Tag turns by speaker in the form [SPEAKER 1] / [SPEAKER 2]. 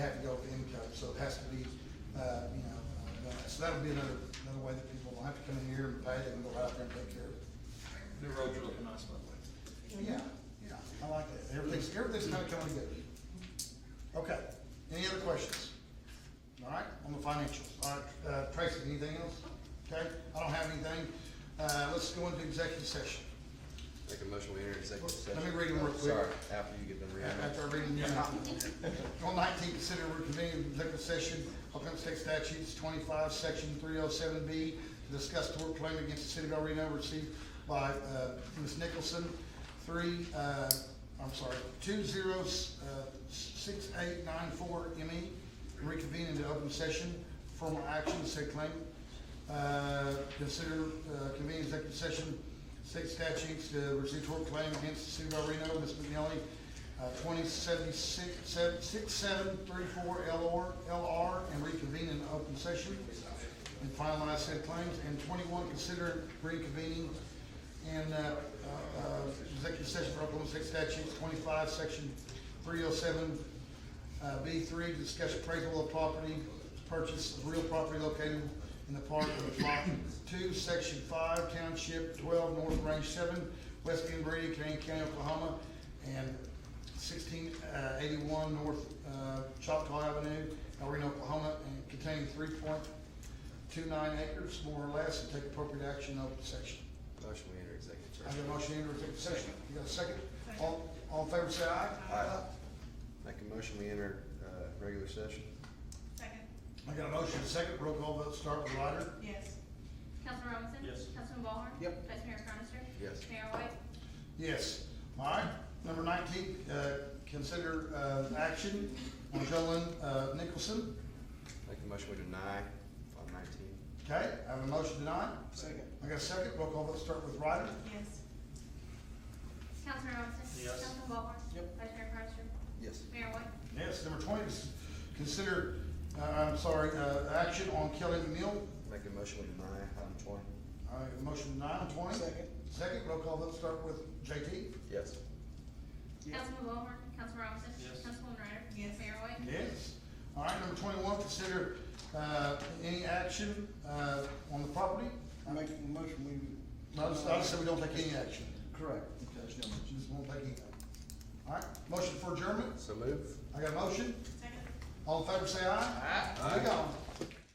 [SPEAKER 1] so it has to be, uh, you know, uh, done. so that would be another, another way that people will have to come in here and pay and go out there and take care of it.
[SPEAKER 2] The roads are looking nice, by the way.
[SPEAKER 1] Yeah, yeah, I like that, everything's, everything's kinda coming together. Okay, any other questions? All right, on the financials, all right, uh, Tracy, anything else? Okay, I don't have anything, uh, let's go into executive session.
[SPEAKER 3] Make a motion, we enter executive
[SPEAKER 1] Let
[SPEAKER 3] session.
[SPEAKER 1] me read 'em real quick.
[SPEAKER 3] Sorry, after you get them read.
[SPEAKER 1] After I read them, yeah. On nineteen, consider reconvening executive session, Oklahoma State Statutes twenty-five, section three oh seven B, to discuss tort claim against the city of El Reno received by, uh, Ms. Nicholson, three, uh, I'm sorry, two zero, uh, six eight nine four M E, reconvene into open session, formal action, said claim. Uh, consider, uh, convening executive session, state statutes to receive tort claim against the city of El Reno, Ms. McNally, uh, 2076, seven- 6734 LR, LR, and reconvene in open session. And finalize said claims. And 21, consider reconvening in uh, uh, uh, executive session for Oklahoma State Statutes 25, Section 307, uh, B three, to discuss appraisal of property, purchase of real property located in the park of lot two, section five, township twelve, north range seven, west end Brady, Kane County, Oklahoma, and sixteen, uh, eighty-one, north, uh, Choctaw Avenue, El Reno, Oklahoma, and containing three point two nine acres, more or less, and take appropriate action in open section.
[SPEAKER 3] Motion, we enter executive
[SPEAKER 1] I
[SPEAKER 3] session.
[SPEAKER 1] have a motion to enter executive session. You got a second? All, all in favor, say aye.
[SPEAKER 3] Aye. Make a motion, we enter, uh, regular session.
[SPEAKER 4] Second,
[SPEAKER 1] I got a motion, and a second, roll call vote, start with Ryder.
[SPEAKER 4] yes.
[SPEAKER 5] Councilman Robinson?
[SPEAKER 2] Yes.
[SPEAKER 5] Councilman Ballhorn?
[SPEAKER 1] Yep.
[SPEAKER 5] Vice Mayor Cronister?
[SPEAKER 3] Yes.
[SPEAKER 5] Mayor White?
[SPEAKER 1] Yes. All right, number nineteen, uh, consider, uh, action on Jolyn, uh, Nicholson.
[SPEAKER 3] Make a motion, we deny on nineteen.
[SPEAKER 1] Okay, I have a motion tonight.
[SPEAKER 2] Second.
[SPEAKER 1] I got a second, roll call, let's start with Ryder.
[SPEAKER 4] Yes.
[SPEAKER 5] Councilman Robinson?
[SPEAKER 2] Yes.
[SPEAKER 5] Councilman Ballhorn?
[SPEAKER 2] Yep.
[SPEAKER 5] Vice Mayor Cronister?
[SPEAKER 3] Yes.
[SPEAKER 5] Mayor White?
[SPEAKER 1] Yes, number twenty, is consider, uh, I'm sorry, uh, action on Kelly McNeil.
[SPEAKER 3] Make a motion, we deny item twenty.
[SPEAKER 1] I have a motion tonight on twenty.
[SPEAKER 2] Second.
[SPEAKER 1] Second, roll call, let's start with JT.
[SPEAKER 3] Yes.
[SPEAKER 5] Councilman Ballhorn? Councilman Robinson?
[SPEAKER 2] Yes.
[SPEAKER 5] Councilwoman Ryder?
[SPEAKER 4] Yes.
[SPEAKER 5] Mayor White?
[SPEAKER 1] Yes. All right, number twenty-one, consider, uh, any action, uh, on the property.
[SPEAKER 6] I make a motion, we.
[SPEAKER 1] I just, I just said we don't take any action.
[SPEAKER 6] Correct.
[SPEAKER 1] Okay, she just won't take anything. All right, motion for adjournment,
[SPEAKER 3] So move.
[SPEAKER 1] I got a motion,
[SPEAKER 4] Second?
[SPEAKER 1] all in favor say aye.
[SPEAKER 3] Aye.
[SPEAKER 1] We gone.